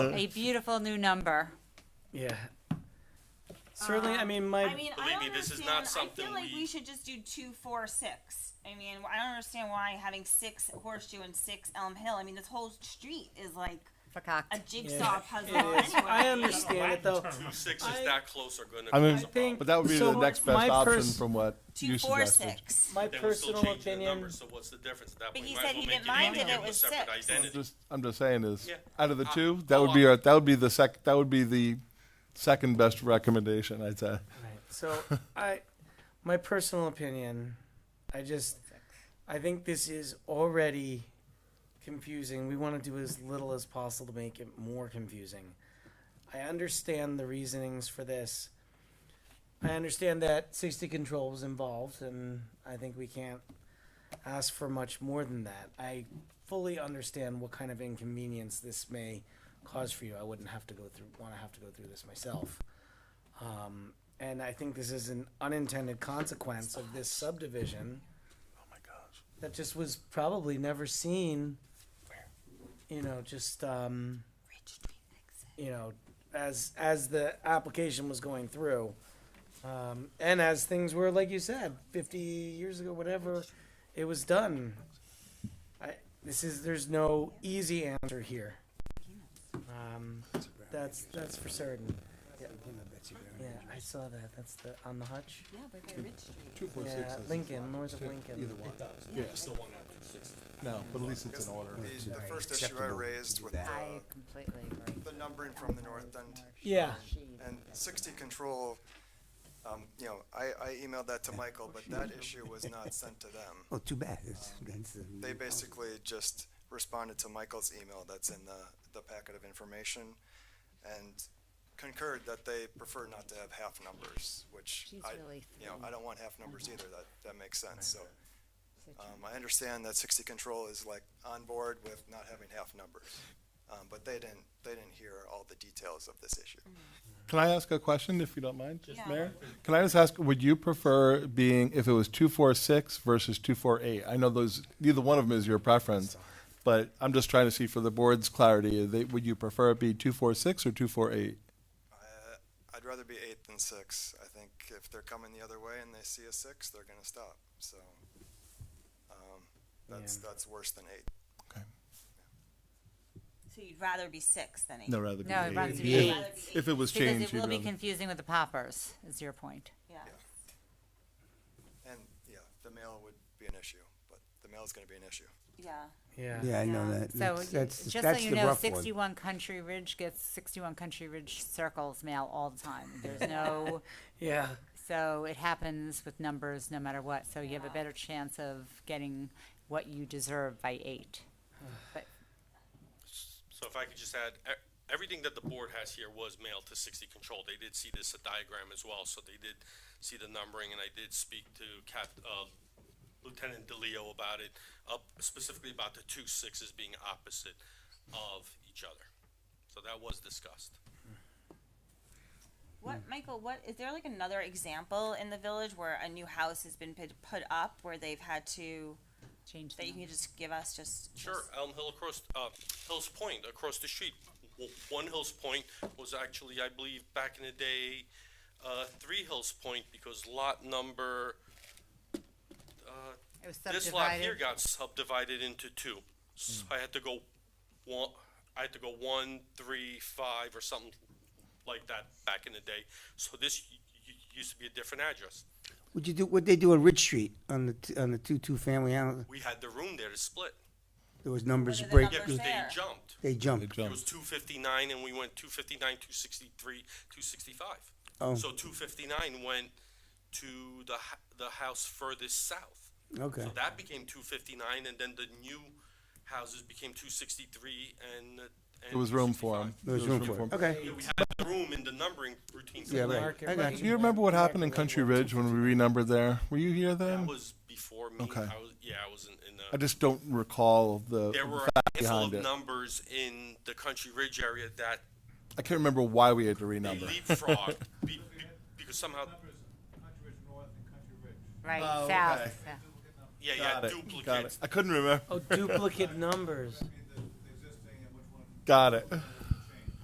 a beautiful new number. Yeah. Certainly, I mean, my Uh, I mean, I Believe don't me, this is understand. not I something feel like we we- should just do two, four, six. I mean, I don't understand why having six at Horseshoe and six Elm Hill. I mean, this whole street is like a Verkauft. jigsaw puzzle. it is. anyway. I understand it though. Two sixes I- that close are gonna. I mean, cause a I think- But that would be So the next best my option pers- from what two, you four, suggested. six. My problem. Then we're still personal changing the opinion. numbers, So what's the difference at that But point? he Might said as well he make didn't mind unique, it, it give a was separate six. I'm identity. just, I'm just saying is Yeah. out of the Uh, two, that oh, would be I- our, that would be the sec, that would be the second best recommendation, I'd say. Right. So I, my personal opinion, I just, I think this is already confusing. We want to do as little as possible to make it more confusing. I understand the reasonings for this. I understand that safety control was involved, and I think we can't ask for much more than that. I fully understand what kind of inconvenience this may cause for you. I wouldn't have to go through, want to have to go through this myself. Um, and I think this is an unintended consequence of this subdivision Oh my gosh. that just was probably never seen. You know, just um, you know, as as the application was going through, um, and as things were, like you said, fifty years ago, whatever, it was done. I this is there's no easy answer here. Um, that's that's for certain. Yeah, I saw that. That's the on the hutch. Yeah, but they're Ridge Street. Two four six. Yeah, is- Lincoln, north of Either Lincoln. one. No, but at least it's in order. The, the first issue I raised with I the, completely agree. the numbering from the north end Yeah. and sixty control, um, you know, I, I emailed that to Michael, but that issue was not sent to them. Oh, too bad. It's, that's, uh, They basically just responded to Michael's email that's in the, the packet of information and concurred that they prefer not to have half numbers, which She's I, really you thin. know, Mm-hmm. I don't want half numbers either. That, that makes sense, so. Um, I understand that sixty control is like on board with not having half numbers, um, but they didn't, they didn't hear all the details of this issue. Mm-hmm. Can I ask a question, if you don't mind, just Yeah. Mayor? Can I just ask, would you prefer being, if it was two four six versus two four eight? I know those, neither one of them is your preference, but I'm just trying to see for the board's clarity, they, would you prefer it be two four six or two four eight? Uh, I'd rather be eight than six. I think if they're coming the other way and they see a six, they're gonna stop, so. um, That's, Yeah. that's worse than eight. So you'd rather be six than eight. No, rather. No, it runs to be You'd eight. rather be eight. If it was Because changed, it will you'd be rather- confusing with the poppers, is your point. Yeah. And, yeah, the mail would be an issue, but the mail's gonna be an issue. Yeah. Yeah. Oh, Yeah, I know Yeah. that. So That's, that's, just so that's you the know, rough one. sixty-one Country Ridge gets sixty-one Country Ridge circles mail all the time. There's no, Yeah. so it happens with numbers no matter what. So you have a better chance of getting what you deserve by eight. But So if I could just add, e- everything that the board has here was mailed to sixty control. They did see this diagram as well, so they did see the numbering, and I did speak to Cap, uh, Lieutenant DeLeo about it, up specifically about the two sixes being opposite of each other. So that was discussed. What, Michael? What is there like another example in the village where a new house has been put, put up where they've had to change the that you can number. just give us just Sure, just- Elm Hill across, uh, Hills Point, across the street. W- One Hills Point was actually, I believe, back in the day, uh, three Hills Point, because lot number, uh, It was this lot here subdivided. got subdivided into two. So I had to go one, I had to go one, three, five, or something like that back in the day. So this y- y- used to be a different address. Would you do, what'd they do on Ridge Street, on the, t- on the two-two family house? We had the room there to split. There was numbers What are the break. Yeah, because they Fair. jumped. They They jumped. It jump. was two fifty-nine and we went two fifty-nine, two sixty-three, two sixty-five. Oh. So two fifty-nine went to the, h- the house furthest south. Okay. So that became two fifty-nine and then the new houses became two sixty-three and. uh, and There was room for 265. them. There was room for it. Okay. Yeah, we had room in the numbering routine. Yeah, right. Market I got rate. Do you remember what happened in Market rate Country was Ridge when we renumbered there? Were you here That then? was before me. Okay. I was, yeah, I was in, in the, I just don't recall the there were fact a handful behind of it. numbers in the Country Ridge area that I can't remember why we had to they renumber. leapfrogged be- be- because somehow, Right, Uh, Oh, south. Oh. okay. yeah. yeah, Got yeah, it, got it. duplicates. I couldn't remember. Oh, duplicate numbers. Got it.